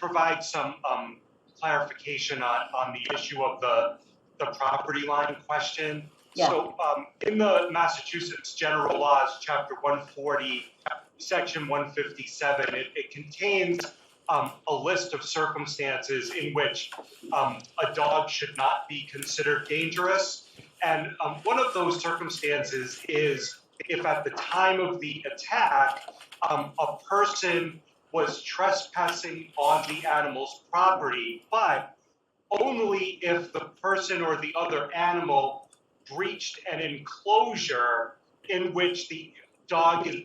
provide some um, clarification on, on the issue of the, the property line question. Yeah. So um, in the Massachusetts General Laws, Chapter 140, Section 157, it, it contains um, a list of circumstances in which um, a dog should not be considered dangerous. And um, one of those circumstances is if at the time of the attack, um, a person was trespassing on the animal's property, but only if the person or the other animal breached an enclosure in which the dog is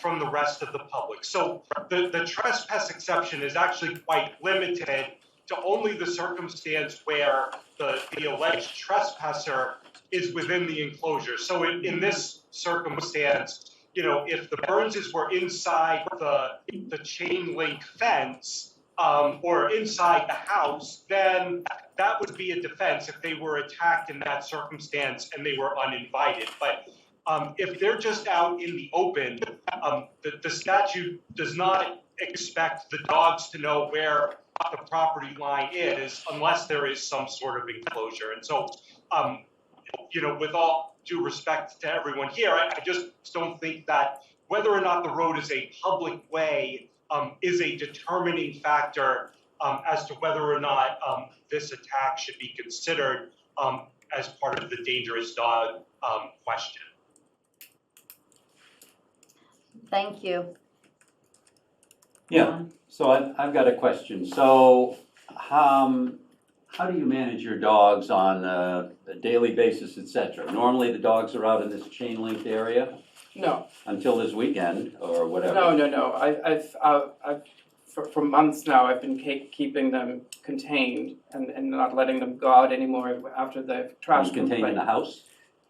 from the rest of the public. So the, the trespass exception is actually quite limited to only the circumstance where the, the alleged trespasser is within the enclosure. So in, in this circumstance, you know, if the Burnses were inside the, the chain link fence um, or inside the house, then that would be a defense if they were attacked in that circumstance and they were uninvited. But um, if they're just out in the open, um, the, the statute does not expect the dogs to know where the property line is unless there is some sort of enclosure. And so, um, you know, with all due respect to everyone here, I, I just don't think that whether or not the road is a public way um, is a determining factor um, as to whether or not um, this attack should be considered um, as part of the dangerous dog um, question. Thank you. Yeah, so I, I've got a question. So, um, how do you manage your dogs on a, a daily basis, et cetera? Normally, the dogs are out in this chain linked area No, until this weekend or whatever. no, no, no. I, I've, uh, I've, for, for months now, I've been ke- keeping them contained and, and not letting them go out anymore after the trash Trash contained in complaint. the house?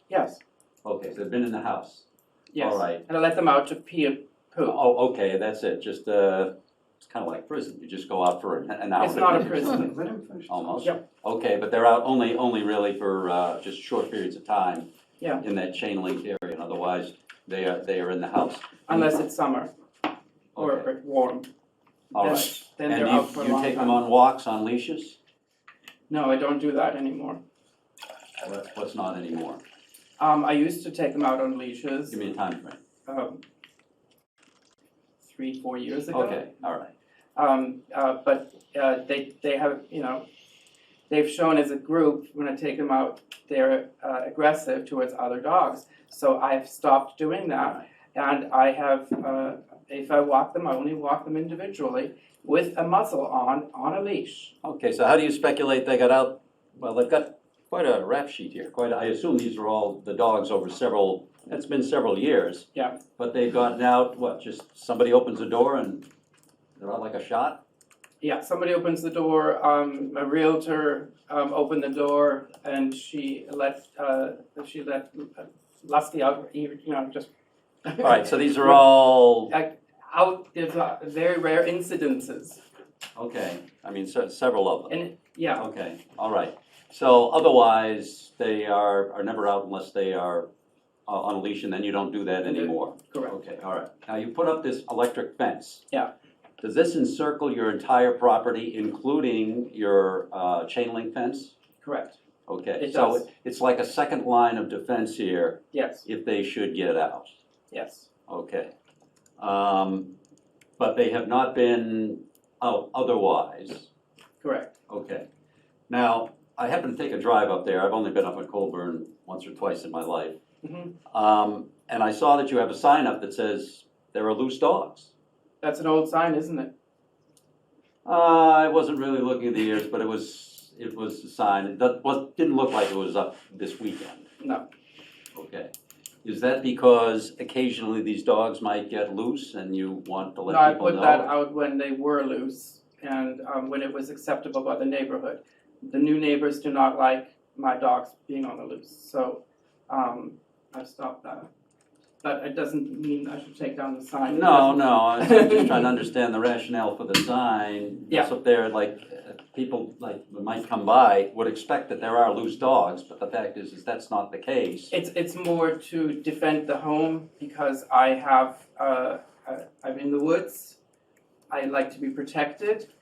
Yes, Okay, so they've been in the house. yes. All right. And I let them out to pee and poo. Oh, okay, that's it. Just, uh, it's kind of like prison. You just go out for an, an hour. It's not a prison. Let him finish. Almost. Yep. Okay, but they're out only, only really for, uh, just short periods of time. Yeah. In that chain linked area, and otherwise, they are, they are in the house. Unless it's summer or Okay. or warm. All Then- right. Then and they're you, out for a you long take them time. on walks on leashes? No, I don't do that anymore. What- What's not anymore? Um, I used to take them out on leashes, Give me a time frame. um, three, four years ago. Okay, all right. Um, uh, but uh, they, they have, you know, they've shown as a group, when I take them out, they're uh, aggressive towards other dogs. So I've stopped doing that. And I have, uh, if I walk them, I only walk them individually with a muzzle on, on a leash. Okay, so how do you speculate they got out? Well, they've got quite a rap sheet here, quite, a- I assume these are all the dogs over several, that's been several years. Yeah. But they've gotten out, what, just somebody opens the door and they're out like a shot? Yeah, somebody opens the door, um, a realtor um, opened the door and she let, uh, she let Lusty out, you know, just. All right, so these are all, out there's uh, very rare incidences okay, I mean, se- several of them. and yeah Okay, all right. So otherwise, they are, are never out unless they are uh, on a leash and then you don't do that anymore? correct Okay, all right. Now, you put up this electric fence. Yeah. Does this encircle your entire property, including your uh, chain link fence? correct Okay. It so does. it- It's like a second line of defense here yes if they should get out. yes Okay. Um, But they have not been out otherwise. correct Okay. Now, I happen to take a drive up there. I've only been up at Colburn once or twice in my life. Mhm. Um, And I saw that you have a sign up that says, "There are loose dogs." that's an old sign isn't it Uh, I wasn't really looking at the years, but it was, it was a sign, it doesn't- was, didn't look like it was up this weekend. no Okay. Is that because occasionally these dogs might get loose and you want to no i let people put know? that out when they were loose and um, when it was acceptable by the neighborhood the new neighbors do not like my dogs being on the loose so um, i've stopped that but it doesn't mean i should take down the sign No, no, I'm just trying to understand the rationale for the sign. Yeah. It's up there, like, uh, people, like, that might come by, would expect that there are loose dogs, but the fact is, is that's not the case. It's it's more to defend the home because I have uh, I, I'm in the woods. I like to be protected,